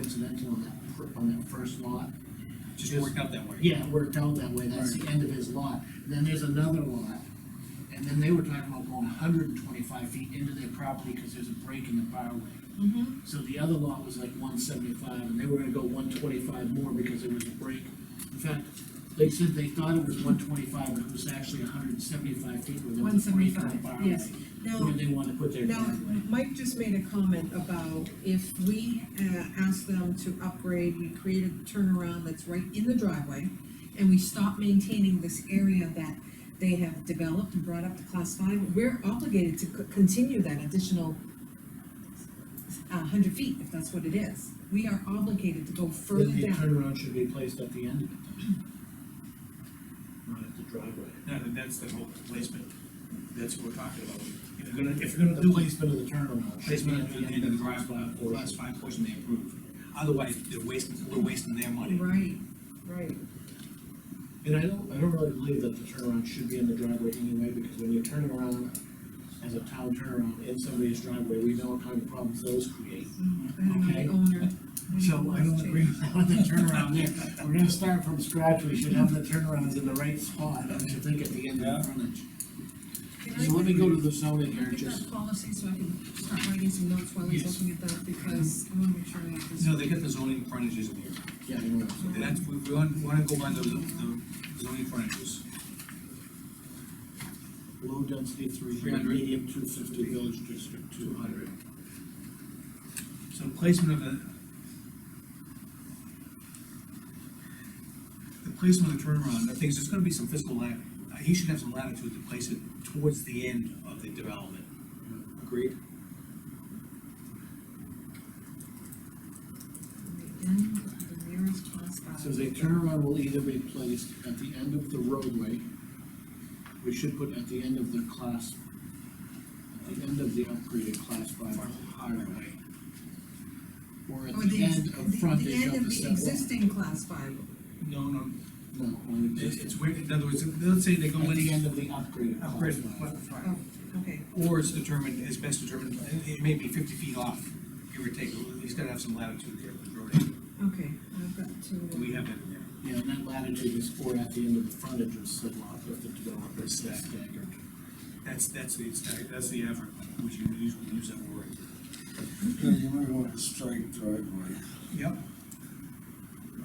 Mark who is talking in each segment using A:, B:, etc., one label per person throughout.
A: coincidental on that, fir- on that first lot.
B: Just worked out that way.
A: Yeah, it worked out that way, that's the end of his lot, then there's another lot, and then they were talking about going hundred and twenty-five feet into their property, cause there's a break in the barway.
C: Mm-hmm.
A: So the other lot was like one seventy-five, and they were gonna go one twenty-five more because there was a break. In fact, they said they thought it was one twenty-five, but it was actually hundred and seventy-five feet where there was a break in the
C: 175,
A: barway.
C: yes.
A: Where
C: Now,
A: they wanted to put their
C: now,
A: driveway.
C: Mike just made a comment about if we, uh, ask them to upgrade, we create a turnaround that's right in the driveway, and we stop maintaining this area that they have developed and brought up to class five, we're obligated to c- continue that additional uh, hundred feet, if that's what it is. We are obligated to go further
A: Then the
C: down.
A: turnaround should be placed at the end of it. Not at the driveway.
B: No, that- that's the whole placement, that's what we're talking about. If you're gonna,
A: If
B: if you're
A: you're
B: gonna
A: gonna do
B: do a
A: placement of the turnaround. should be
B: placement
A: at
B: at the
A: end
B: end of the
A: class
B: drive,
A: five
B: uh,
A: portion.
B: class five portion, they approve. Otherwise, they're wasting, we're wasting their money.
C: Right, right.
A: And I don't, I don't really believe that the turnaround should be in the driveway anyway, because when you turn around as a town turnaround in somebody's driveway, we know what kind of problems those create.
C: Mm, I don't know
A: Okay.
C: the owner.
A: So I don't agree with that with the turnaround there. We're gonna start from scratch, we should have the turnarounds in the right spot, I should think at the end of the frontage.
C: Can I
A: So let me go to
C: get-
A: the zoning
C: Can I
A: here,
C: get that
A: just,
C: policy so I can start writing some notes while he's
A: Yes.
C: looking at that, because I wanna make sure I have this.
B: No, they got the zoning frontages in here.
A: yeah, you know, so-
B: That's, we we want, wanna go by the the zoning frontages.
A: low density three hundred,
B: 300.
A: medium two fifty, village district two hundred.
B: So placement of the. The placement of the turnaround, I think there's gonna be some fiscal lat, uh, he should have some latitude to place it towards the end of the development. Agreed?
C: The end of the nearest class five.
A: So the turnaround will either be placed at the end of the roadway, we should put at the end of the class, at the end of the upgraded class five highway, or at
C: Or
A: the
C: Oh, ex-
A: end of frontage
C: end
A: of the
C: of the
A: step one.
C: existing class five,
B: No, no,
A: No, on the
B: it's,
A: existing.
B: it's where, in other words, let's say they go
A: At the
B: in.
A: end of the upgraded
B: Upgrade,
A: class five.
C: oh, okay,
B: Or it's determined, it's best determined, it- it may be fifty feet off, give or take, he's gotta have some latitude there with road.
C: okay, I've got to. uh,
B: We have that in there.
A: Yeah, and that latitude is four at the end of the frontage of said lot, if the developer is staggered.
B: That's, that's the, that's the effort, which you usually use that word.
D: Yeah, you might want to strike driveway.
B: Yep.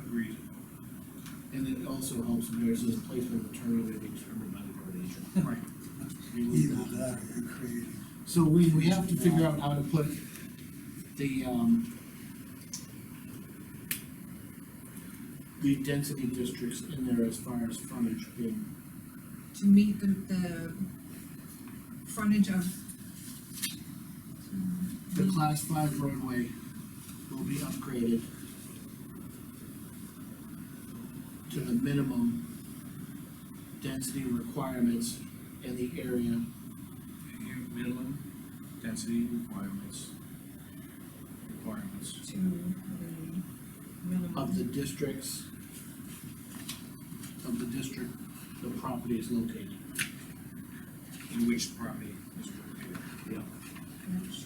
B: Agreed.
A: And it also helps when there's this placement of the turnaround to be determined by the road agent.
B: Right.
D: Either that or you're creating.
A: So we, we have to figure out how to put the, um, the density districts in there as far as frontage being,
C: To meet the, the frontage of.
A: the class five roadway will be upgraded to the minimum density requirements in the area
B: Minimum density requirements. Requirements.
C: To, um, minimum.
A: of the districts, of the district the property is located.
B: In which the property is located.
A: Yeah.
C: Which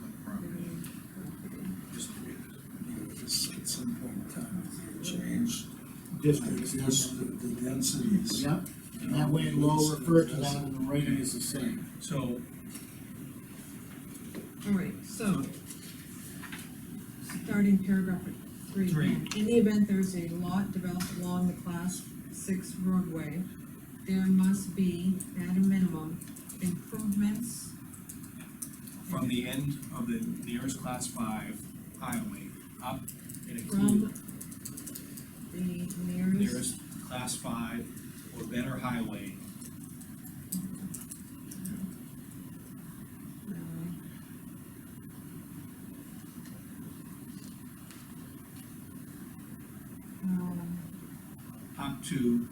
B: Like property,
C: minimum
B: just the way it is.
D: you know, this at some point in time, if you change.
A: Districts,
D: like, this, The the densities.
A: Yep, and that way we'll refer to that in the writing is the same.
B: So,
C: property. All right, so. Starting paragraph three.
B: Three.
C: In the event there is a lot developed along the class six roadway, there must be, at a minimum, improvements
B: from the end of the nearest class five highway up and include
C: from the nearest.
B: nearest class five or better highway
C: uh, um,
B: up to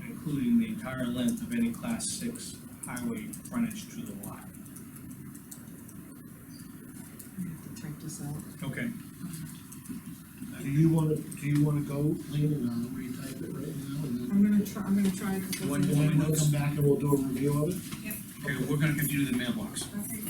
B: and including the entire length of any class six highway frontage to the lot.
C: I have to type this out.
B: Okay.
A: Do you wanna, do you wanna go, Lean, and I'll retype it right now, and then
C: I'm gonna try, I'm gonna try. a couple
B: One
C: things.
B: more.
A: and then we'll come back and we'll do a review of it?
B: Okay, we're gonna continue to the mailbox.
C: Okay.